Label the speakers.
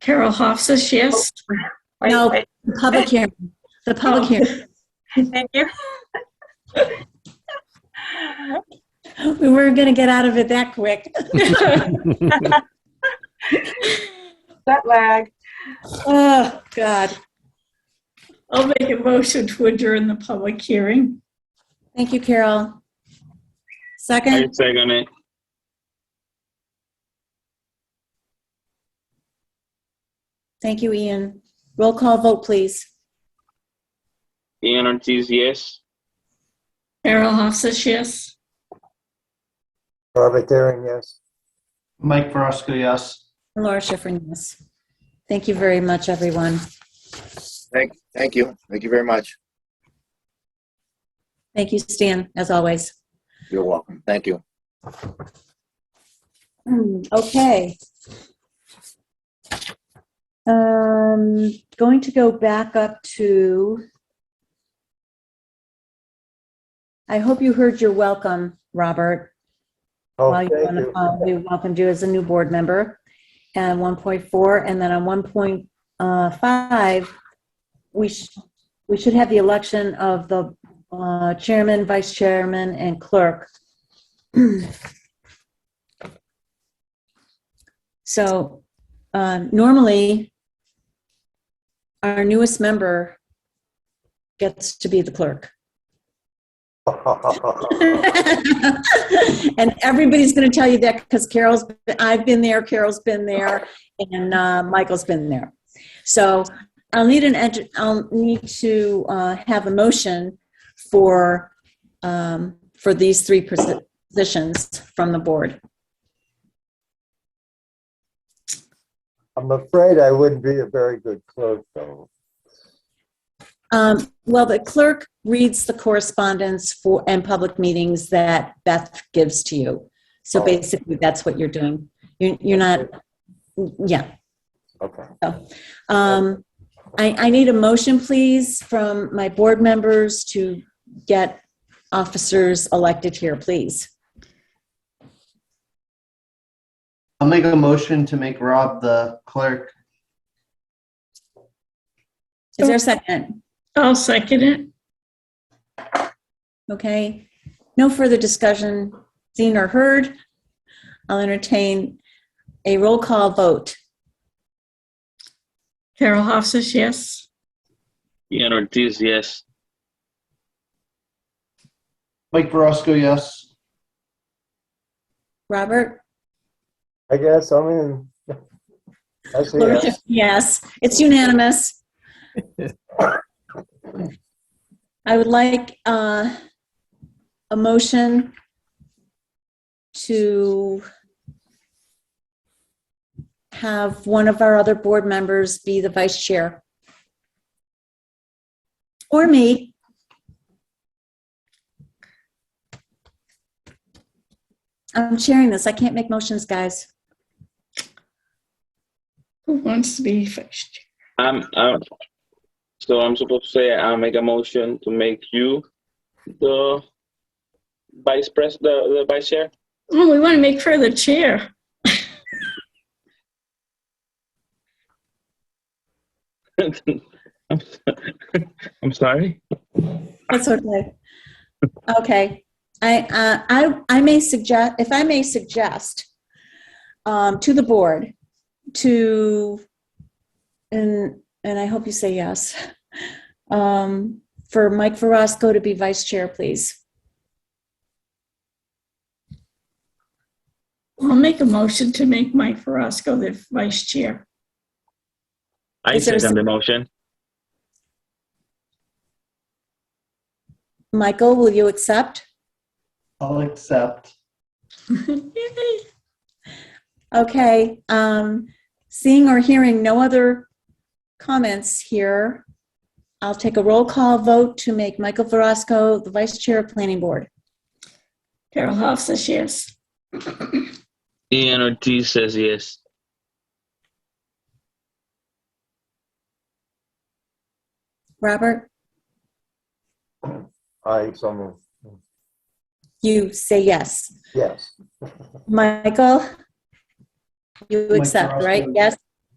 Speaker 1: Carol Hoff says yes.
Speaker 2: Wait,
Speaker 3: No.
Speaker 2: wait,
Speaker 3: The public hearing, the public
Speaker 2: Oh.
Speaker 3: hearing.
Speaker 2: Thank you.
Speaker 3: We weren't going to get out of it that quick.
Speaker 2: That lag.
Speaker 3: Oh, God.
Speaker 1: I'll make a motion to adjourn the public hearing.
Speaker 3: Thank you, Carol.
Speaker 4: I
Speaker 3: Second,
Speaker 4: second it.
Speaker 3: thank you, Ian. Roll call vote, please.
Speaker 4: Ian Ortiz, yes.
Speaker 1: Carol Hoff says yes.
Speaker 5: Robert Derring, yes.
Speaker 6: Mike Verosco, yes.
Speaker 3: Laura Schifrin, yes. Thank you very much, everyone.
Speaker 7: Thank, thank you. Thank you very much.
Speaker 3: Thank you, Stan, as always.
Speaker 7: You're welcome. Thank you.
Speaker 3: Okay. Um, going to go back up to. I hope you heard your welcome, Robert.
Speaker 5: Oh,
Speaker 3: while
Speaker 5: thank
Speaker 3: you're on the
Speaker 5: you.
Speaker 3: phone, we welcomed you as a new board member. And 1.4, and then on 1.5, we sh we should have the election of the uh, chairman, vice chairman, and clerk. So um, normally, our newest member gets to be the clerk. and everybody's going to tell you that because Carol's, I've been there, Carol's been there, and uh, Michael's been there. So I'll need an, edu- I'll need to uh, have a motion for, um, for these three posi- positions from the board.
Speaker 5: I'm afraid I wouldn't be a very good clerk, though.
Speaker 3: Um, Well, the clerk reads the correspondence for, and public meetings that Beth gives to you. So
Speaker 5: Oh.
Speaker 3: basically, that's what you're doing. You're you're not, yeah.
Speaker 5: Okay.
Speaker 3: Um, I, I need a motion, please, from my board members to get officers elected here, please.
Speaker 6: I'll make a motion to make Rob the clerk.
Speaker 3: Is there a second?
Speaker 1: I'll second it.
Speaker 3: Okay. No further discussion, seen or heard. I'll entertain a roll call vote.
Speaker 1: Carol Hoff says yes.
Speaker 4: Ian Ortiz, yes.
Speaker 6: Mike Verosco, yes.
Speaker 3: Robert?
Speaker 5: I guess, I mean, I see.
Speaker 3: Laura
Speaker 5: it.
Speaker 3: Schiff- Yes, it's unanimous. I would like uh, a motion to have one of our other board members be the vice chair. Or me. I'm sharing this. I can't make motions, guys.
Speaker 1: Who wants to be first?
Speaker 4: I'm, I'm, so I'm supposed to say I'll make a motion to make you the vice pres, the, the vice chair?
Speaker 1: Oh, we want to make her the chair.
Speaker 4: I'm so- I'm sorry?
Speaker 3: That's okay. Okay. I, uh, I, I may suggest, if I may suggest um, to the board to, and, and I hope you say yes, um, for Mike Verosco to be vice chair, please.
Speaker 1: I'll make a motion to make Mike Verosco the vice chair.
Speaker 4: I
Speaker 3: Is there a
Speaker 4: second the motion.
Speaker 3: Michael, will you accept?
Speaker 6: I'll accept.
Speaker 1: Yay.
Speaker 3: Okay. Um, seeing or hearing no other comments here, I'll take a roll call vote to make Michael Verosco the vice chair of planning board.
Speaker 1: Carol Hoff says yes.
Speaker 4: Ian Ortiz says yes.
Speaker 3: Robert?
Speaker 5: I, so moved.
Speaker 3: You say yes.
Speaker 5: Yes.
Speaker 3: Michael? You
Speaker 6: Mike
Speaker 3: accept, right?
Speaker 6: Verosco.
Speaker 3: Yes?